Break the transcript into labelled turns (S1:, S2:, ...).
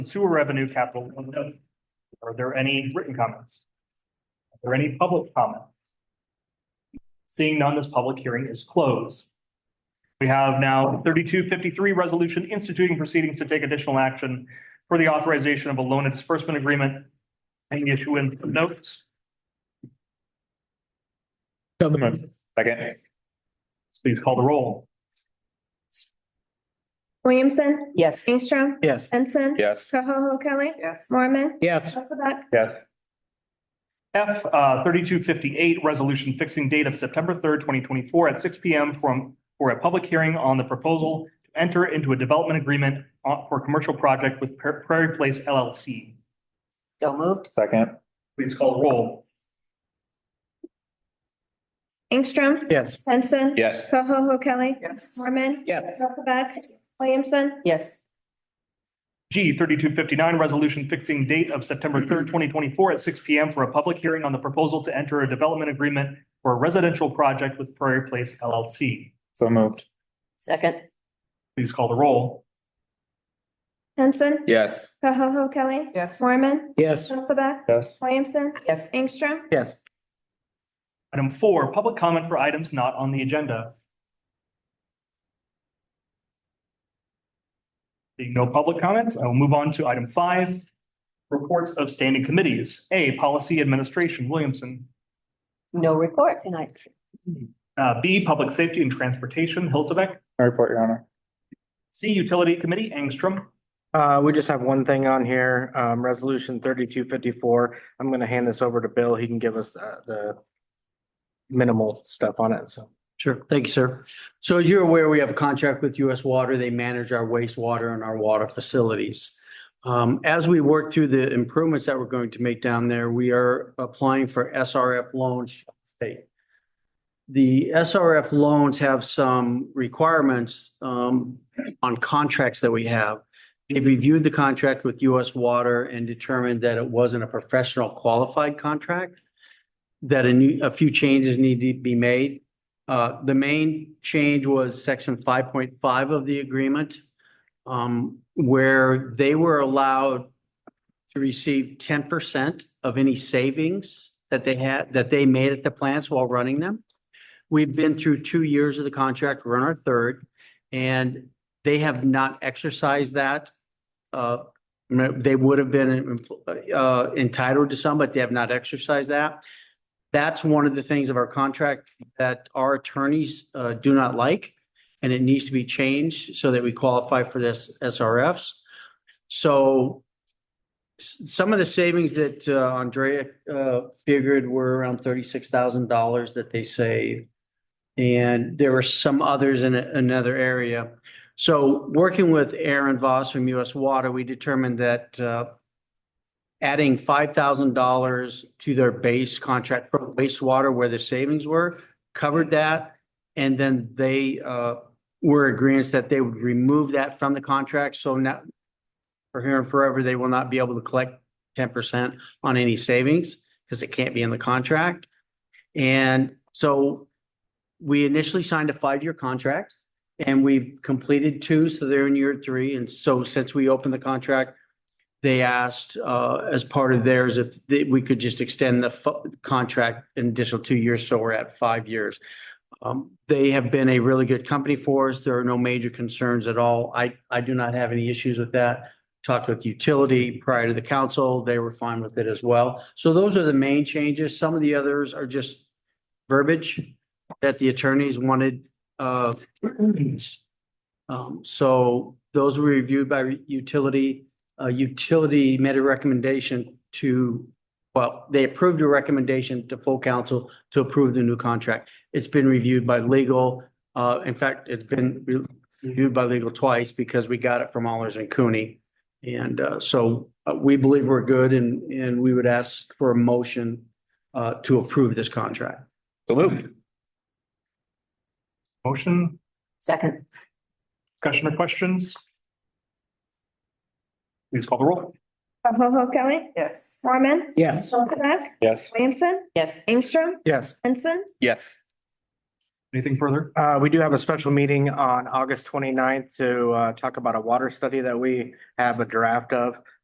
S1: Sewer revenue capital. one note. Are there any written comments? Are there any public comments? Seeing none, this public hearing is closed. We have now thirty-two fifty-three resolution instituting proceedings to take additional action for the authorization of a loan and disbursement agreement and the issuance of notes.
S2: So moved. Second.
S1: Please call the roll.
S3: Williamson,
S4: Yes.
S3: Ingstrom,
S2: Yes.
S3: Henson.
S2: Yes.
S3: Koho Kelly,
S4: Yes.
S3: Mormon,
S2: Yes.
S3: Elizabeth,
S2: Yes.
S1: F uh, thirty-two fifty-eight, resolution fixing date of September third, twenty twenty-four at six P M from, for a public hearing on the proposal to enter into a development agreement on- for a commercial project with Pra- Prairie Place LLC.
S4: So moved.
S2: Second.
S1: Please call the roll.
S3: Ingstrom,
S2: Yes.
S3: Henson.
S2: Yes.
S3: Koho Kelly,
S4: Yes.
S3: Mormon,
S2: Yes.
S3: Elizabeth, Williamson,
S4: Yes.
S1: G thirty-two fifty-nine, resolution fixing date of September third, twenty twenty-four at six P M for a public hearing on the proposal to enter a development agreement for a residential project with Prairie Place LLC.
S2: So moved.
S4: Second.
S1: Please call the roll.
S3: Henson.
S2: Yes.
S3: Koho Kelly.
S4: Yes.
S3: Mormon,
S2: Yes.
S3: Elizabeth,
S2: Yes.
S3: Williamson,
S4: Yes.
S3: Ingstrom,
S2: Yes.
S1: Item four, public comment for items not on the agenda. Seeing no public comments, I will move on to item five. Reports of standing committees. A, Policy Administration, Williamson.
S4: No report tonight.
S1: Uh, B, Public Safety and Transportation, Hilsebeck.
S2: I report, Your Honor.
S1: C, Utility Committee, Angstrom.
S5: Uh, we just have one thing on here, um, resolution thirty-two fifty-four. I'm gonna hand this over to Bill. He can give us the, the minimal stuff on it, so.
S6: Sure. Thank you, sir. So as you're aware, we have a contract with US Water. They manage our wastewater and our water facilities. Um, as we work through the improvements that we're going to make down there, we are applying for SRF loans. from the state. The SRF loans have some requirements, um, on contracts that we have. They reviewed the contract with US Water and determined that it wasn't a professional qualified contract. That a new, a few changes need to be made. Uh, the main change was section five point five of the agreement. um, where they were allowed to receive ten percent of any savings that they had, that they made at the plants while running them. We've been through two years of the contract, we're on our third, and they have not exercised that. Uh, they would have been uh, entitled to some, but they have not exercised that. That's one of the things of our contract that our attorneys uh, do not like, and it needs to be changed so that we qualify for this SRFs. So s- some of the savings that uh, Andrea uh, figured were around thirty-six thousand dollars that they saved. And there were some others in a- another area. So working with Aaron Voss from US Water, we determined that uh, adding five thousand dollars to their base contract for wastewater where the savings were, covered that. And then they uh were agreements that they would remove that from the contract, so now for here and forever, they will not be able to collect ten percent on any savings because it can't be in the contract. And so we initially signed a five-year contract and we've completed two, so they're in year three. And so since we opened the contract, they asked uh as part of theirs if they- we could just extend the fu- contract an additional two years, so we're at five years. Um, they have been a really good company for us. There are no major concerns at all. I, I do not have any issues with that. Talked with utility prior to the council. They were fine with it as well. So those are the main changes. Some of the others are just verbiage that the attorneys wanted, uh, um, so those were reviewed by utility, uh, utility made a recommendation to, well, they approved a recommendation to full council to approve the new contract. It's been reviewed by legal. Uh, in fact, it's been re- reviewed by legal twice because we got it from Allers and Cooney. And, uh, so uh, we believe we're good and, and we would ask for a motion, uh, to approve this contract.
S2: So moved.
S1: Motion,
S4: Second.
S1: discussion or questions? Please call the roll.
S3: Koho Kelly,
S4: Yes.
S3: Mormon,
S2: Yes.
S3: Elizabeth,
S2: Yes.
S3: Williamson,
S4: Yes.
S3: Ingstrom,
S5: Yes.
S3: Henson,
S2: Yes.
S1: Anything further?
S5: Uh, we do have a special meeting on August 29th to, uh, talk about a water study that we have a draft of.